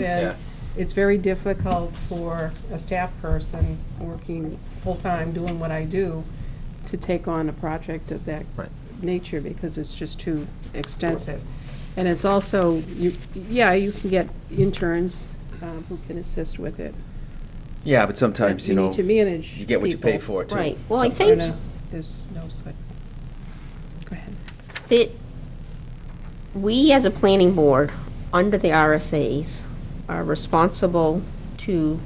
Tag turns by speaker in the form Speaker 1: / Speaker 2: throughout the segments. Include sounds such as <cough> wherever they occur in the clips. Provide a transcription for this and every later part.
Speaker 1: Yeah.
Speaker 2: and it's very difficult for a staff person working full-time, doing what I do, to take on a project of that
Speaker 1: Right.
Speaker 2: nature because it's just too extensive. And it's also, you, yeah, you can get interns um, who can assist with it.
Speaker 1: Yeah, but sometimes,
Speaker 2: But
Speaker 1: you
Speaker 2: you
Speaker 1: know.
Speaker 2: need to manage
Speaker 1: You get what you pay
Speaker 2: people.
Speaker 1: for, too.
Speaker 3: Right. Well, I
Speaker 2: I
Speaker 3: think
Speaker 2: know, there's no such, go ahead.
Speaker 3: that we, as a planning board, under the RSAs, are responsible to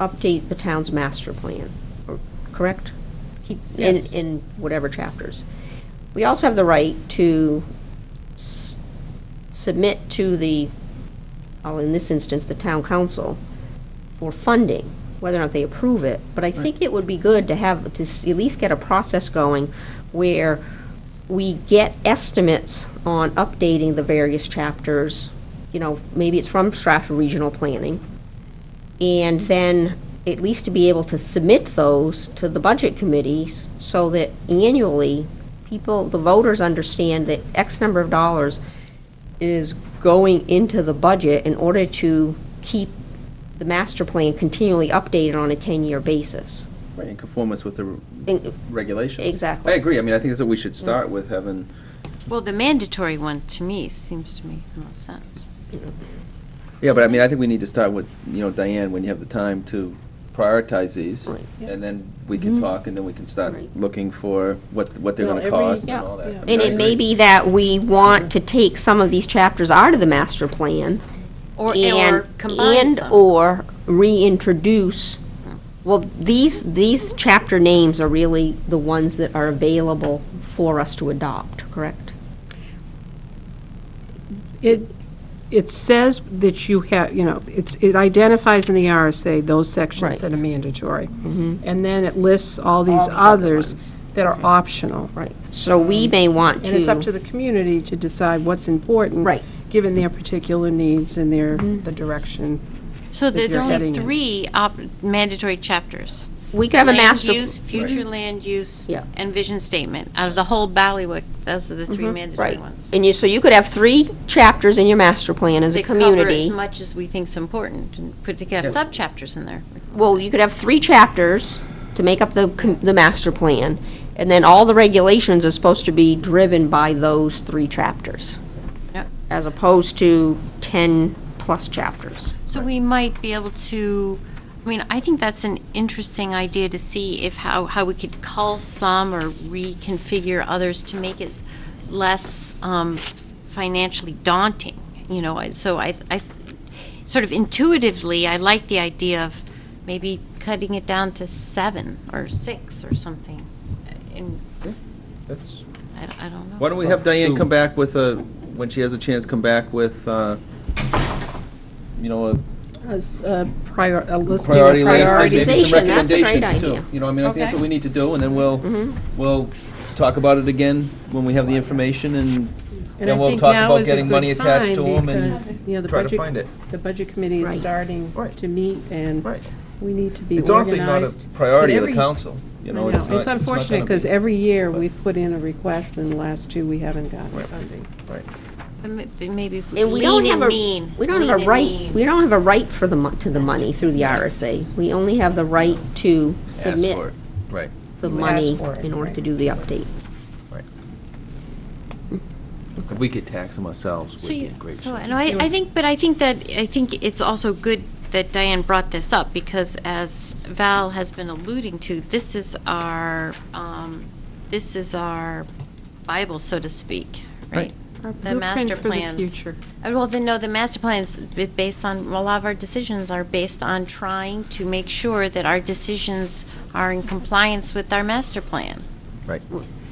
Speaker 3: update the town's master plan, or- correct? Keep- in-
Speaker 2: Yes.
Speaker 3: In whatever chapters. We also have the right to s- submit to the, well, in this instance, the town council, for funding, whether or not they approve it. But I think it would be good to have, to s- at least get a process going where we get estimates on updating the various chapters, you know, maybe it's from Stratford Regional Planning, and then at least to be able to submit those to the budget committees so that annually, people, the voters understand that X number of dollars is going into the budget in order to keep the master plan continually updated on a 10-year basis.
Speaker 1: Right, in conformance with the r-
Speaker 3: In-
Speaker 1: regulations.
Speaker 3: Exactly.
Speaker 1: I agree. I mean, I think that's what we should start with, having,
Speaker 4: Well, the mandatory one, to me, seems to make the most sense.
Speaker 1: yeah, but I mean, I think we need to start with, you know, Diane, when you have the time to prioritize these.
Speaker 3: Right. Mm-hmm.
Speaker 2: Yeah.
Speaker 1: And then we can talk, and then we can start
Speaker 3: Right.
Speaker 1: looking for what, what they're
Speaker 2: Well,
Speaker 1: gonna
Speaker 2: every-
Speaker 1: cost and
Speaker 3: yeah,
Speaker 1: all that.
Speaker 2: yeah.
Speaker 1: I mean,
Speaker 3: And
Speaker 1: I
Speaker 3: it may
Speaker 1: agree.
Speaker 3: be that we want to take some of these chapters out of the master plan
Speaker 4: Or,
Speaker 3: and,
Speaker 4: or combine
Speaker 3: and
Speaker 4: some.
Speaker 3: or reintroduce, well, these, these chapter names are really the ones that are available for us to adopt, correct?
Speaker 2: It, it says that you have, you know, it's, it identifies in the RSA those sections
Speaker 3: Right. Mm-hmm.
Speaker 2: that are mandatory. And then it lists all these others that are optional.
Speaker 3: Right. So
Speaker 4: Mm-hmm.
Speaker 3: we may want to.
Speaker 2: And it's up to the community to decide what's important.
Speaker 3: Right. Mm-hmm.
Speaker 2: Given their particular needs and their, the direction.
Speaker 4: So there's
Speaker 2: you're
Speaker 4: only
Speaker 2: heading in.
Speaker 4: three op- mandatory chapters.
Speaker 3: We could have a master.
Speaker 4: Land use, future land use,
Speaker 3: Yeah.
Speaker 4: and vision statement. Out of the whole Ballywick, those are the three mandatory
Speaker 3: Mm-hmm. Right.
Speaker 4: ones.
Speaker 3: And you, so you could have three chapters in your master plan as a
Speaker 4: They cover as
Speaker 3: community.
Speaker 4: much as we think's important, and put to have subchapters in there.
Speaker 3: Well, you could have three chapters to make up the, com- the master plan. And then all the regulations are supposed to be driven by those three chapters.
Speaker 4: Yep.
Speaker 3: As opposed to 10-plus chapters.
Speaker 4: So we might be able to, I mean, I think that's an interesting idea to see if how, how we could cull some or reconfigure others to make it less um, financially daunting, you know, I- so I, I s- sort of intuitively, I like the idea of maybe cutting it down to seven or six or something. And
Speaker 1: That's-
Speaker 4: I, I don't know.
Speaker 1: Why don't we have Diane come back with a, when she has a chance, come back with, uh, you know, a
Speaker 2: As a prior, a listing of
Speaker 1: priority list and maybe
Speaker 2: priorities.
Speaker 3: Prioritization, that's
Speaker 1: some
Speaker 3: a great
Speaker 1: recommendations too.
Speaker 3: idea.
Speaker 1: You know, I mean, I think that's
Speaker 4: Okay.
Speaker 1: what we need to do, and then we'll,
Speaker 2: Mm-hmm.
Speaker 1: we'll talk about it again when we have the information, and
Speaker 2: And I
Speaker 1: then we'll
Speaker 2: think
Speaker 1: talk
Speaker 2: now
Speaker 1: about
Speaker 2: is a
Speaker 1: getting
Speaker 2: good
Speaker 1: money attached
Speaker 2: time
Speaker 1: to them
Speaker 2: because, you know,
Speaker 1: and
Speaker 2: the
Speaker 1: try to
Speaker 2: budget-
Speaker 1: find it.
Speaker 2: The budget committee is
Speaker 3: Right.
Speaker 2: starting
Speaker 1: Right.
Speaker 2: to meet and
Speaker 1: Right.
Speaker 2: we need to be
Speaker 1: It's
Speaker 2: organized.
Speaker 1: honestly not a priority
Speaker 2: But
Speaker 1: of the
Speaker 2: every-
Speaker 1: council, you
Speaker 2: I
Speaker 1: know.
Speaker 2: know,
Speaker 1: not-
Speaker 2: it's
Speaker 1: not
Speaker 2: unfortunate,
Speaker 1: gonna
Speaker 2: because
Speaker 1: be-
Speaker 2: every year,
Speaker 1: but-
Speaker 2: we've put in a request, and the last two, we haven't gotten
Speaker 1: Right.
Speaker 2: funding.
Speaker 1: Right.
Speaker 4: But ma- but Maybe if we
Speaker 3: And we don't
Speaker 4: lean
Speaker 3: have
Speaker 4: and
Speaker 3: a,
Speaker 4: mean.
Speaker 3: we don't
Speaker 4: lean
Speaker 3: have a
Speaker 4: and
Speaker 3: right,
Speaker 4: mean.
Speaker 3: we don't have a right for the, mon- to the money through the RSA. We only have the right to
Speaker 1: Ask for it.
Speaker 3: submit
Speaker 1: Right.
Speaker 3: the
Speaker 2: Ask
Speaker 3: money
Speaker 2: for it,
Speaker 3: in order
Speaker 2: right.
Speaker 3: to do the update.
Speaker 2: Mm-hmm.
Speaker 1: If we could tax them ourselves,
Speaker 4: So
Speaker 1: we'd be
Speaker 4: you-
Speaker 1: in great
Speaker 4: So,
Speaker 1: shape.
Speaker 4: and I, I think, but I think that, I think it's also good that Diane brought this up, because as Val has been alluding to, this is our, um, this is our Bible, so to speak, right? The master
Speaker 2: Blueprint for
Speaker 4: plan.
Speaker 2: the future.
Speaker 4: Uh, Well, then, no, the master plans, b- based on, a lot of our decisions are based on trying to make sure that our decisions are in compliance with our master plan.
Speaker 1: Right.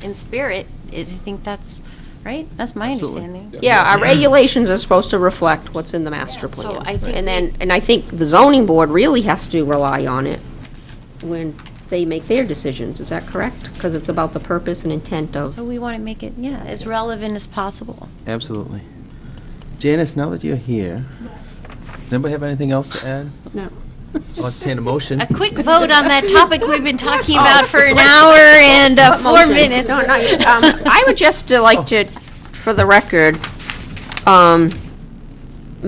Speaker 4: In spirit, I think that's, right? That's my
Speaker 1: Absolutely.
Speaker 4: understanding.
Speaker 3: Yeah, our regulations are supposed to reflect what's in the master
Speaker 4: Yeah, so
Speaker 3: plan.
Speaker 4: I think
Speaker 3: And then, and I think the zoning board really has to rely on it when they make their decisions, is that correct? Because it's about the purpose and intent of,
Speaker 4: So we want to make it, yeah, as relevant as possible.
Speaker 1: Absolutely. Janice, now that you're here, does anybody have anything else to add?
Speaker 2: No.
Speaker 1: I'll entertain a motion.
Speaker 4: <laughs> A quick vote on that topic we've been talking about for an hour and uh, four
Speaker 3: <laughs>
Speaker 4: minutes.
Speaker 3: No, no, um, I would just uh, like to, for the record, um,